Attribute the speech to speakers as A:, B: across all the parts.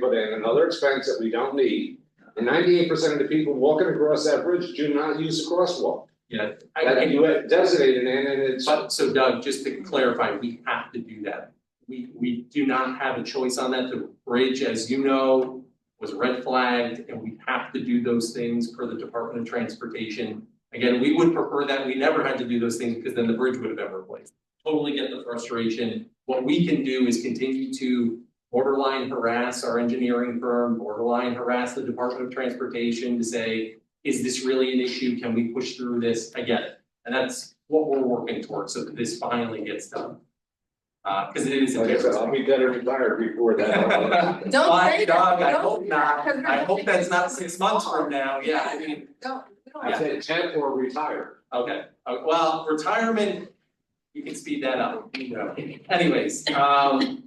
A: road in, another expense that we don't need. And ninety-eight percent of the people walking across that bridge do not use the crosswalk.
B: Yeah, I I-
A: That you have designated in and it's,
B: but so Doug, just to clarify, we have to do that. We we do not have a choice on that. The bridge, as you know, was red flagged and we have to do those things per the Department of Transportation. Again, we would prefer that we never had to do those things because then the bridge would have been replaced. Totally get the frustration. What we can do is continue to borderline harass our engineering firm, borderline harass the Department of Transportation to say, is this really an issue? Can we push through this? I get it. And that's what we're working towards, so that this finally gets done. Uh, cause it is a
A: like I said,
B: difference.
A: I'll be dead and retired before that.
C: Don't
B: Why,
C: say that,
B: Doug, I
C: don't
B: hope
C: say that,
B: not.
C: 'cause we're
B: I
C: gonna
B: hope
C: think
B: that's
C: it's
B: not six months
C: tomorrow.
B: from now, yeah, I mean,
C: Don't, we don't
A: I
C: have to.
A: said ten or retire.
B: okay, Uh, well, retirement, you can speed that up, you know. Anyways, um.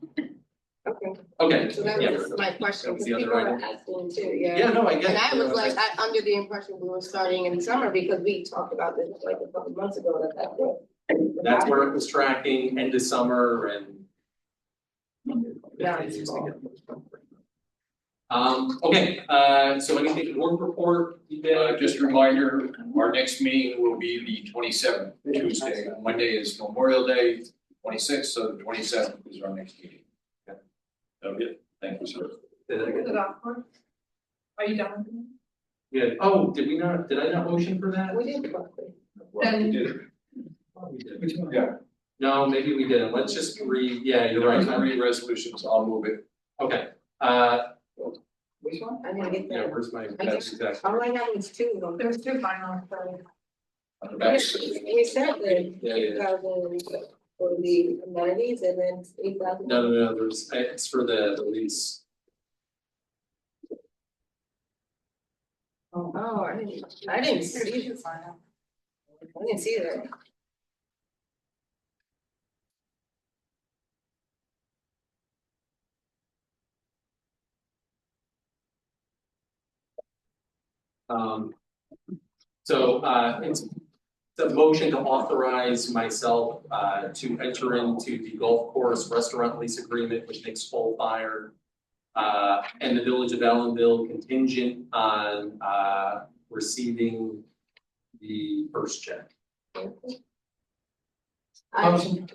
B: Okay.
C: So that
B: yeah.
C: was my
B: That
C: question,
B: was
C: because
B: the other
C: people were
B: item.
C: asking too, yeah.
B: Yeah, no, I get it.
C: And I was
B: Uh,
C: like, I, under the impression we were starting in summer because we talked about this like a couple months ago that that was.
B: That's where it was tracking end of summer and.
C: Yeah, it's
B: Um, okay, uh, so anything, work report, you did?
D: Uh, just a reminder, our next meeting will be the twenty seventh, Tuesday, Monday is Memorial Day, twenty sixth, so the twenty seventh is our next meeting. Okay, thank you, sir.
E: Is it off for? Are you done?
B: Yeah, oh, did we not, did I not motion for that?
C: We did talk about
A: Well, we did.
B: Thought we did.
D: Which one?
A: Yeah.
B: No, maybe we didn't, let's just re, yeah, you're right,
D: There are three resolutions, I'll move it.
B: okay, uh,
D: Which one?
C: it. I didn't get
B: yeah,
C: that.
B: where's my,
C: I
B: that's
C: guess-
B: exactly.
C: All I know is two of them.
E: There's two final, so.
D: On the back.
C: We said that
B: Yeah,
C: eight
B: yeah,
C: thousand for the amenities and then eight thousand.
B: no, no, no, there's, it's for the, the lease.
C: Oh, I didn't, I didn't
E: There's
C: see,
E: two final.
C: I didn't see that.
B: Um. So uh it's the motion to authorize myself uh to enter into the golf course restaurant lease agreement with Nick's Full Fire. Uh and the Village of Allenville contingent on uh receiving the first check.
C: I-
D: Motion.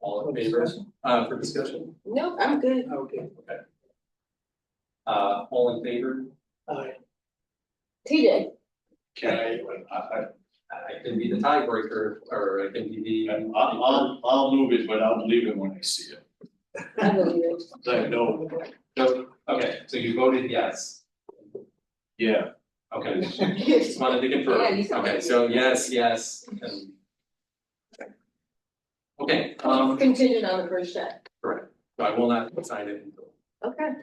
B: All in favor, uh for discussion?
C: No, I'm good.
B: Okay. Okay. Uh all in favor?
C: TJ,
D: Can I, I, I,
B: I I can be the tiebreaker or I can be the.
D: I'm- I'll, I'll, I'll move it, but I'll leave it when I see it.
C: I believe it.
D: Like, no,
B: No, okay, so you voted yes.
D: yeah,
B: Okay. Just wanted to confirm.
C: Yeah, you sound
B: Okay,
C: like
B: so yes, yes, and. Okay, um,
C: Contingent on the first check.
B: so I will not sign it until,
C: Okay.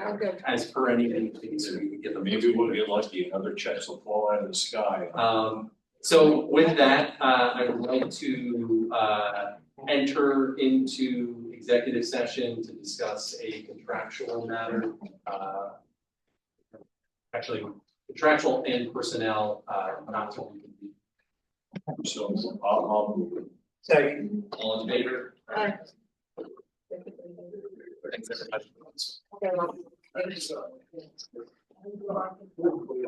C: Sounds good.
B: as per any anything that we can get them.
D: maybe we'll get lucky, another check will fall out of the sky.
B: Um, so with that, uh, I would like to, uh, enter into executive session to discuss a contractual matter, uh. Actually, contractual and personnel, uh, not to be
D: So I'll, I'll move it.
B: all in favor.
C: Aye.
B: Thanks, everybody.
C: Okay, well,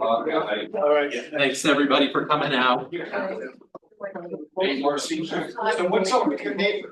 A: Uh,
D: All right.
B: Thanks, everybody, for coming out.
C: all right.
D: Hey, Marcy, so what's up with your neighbor?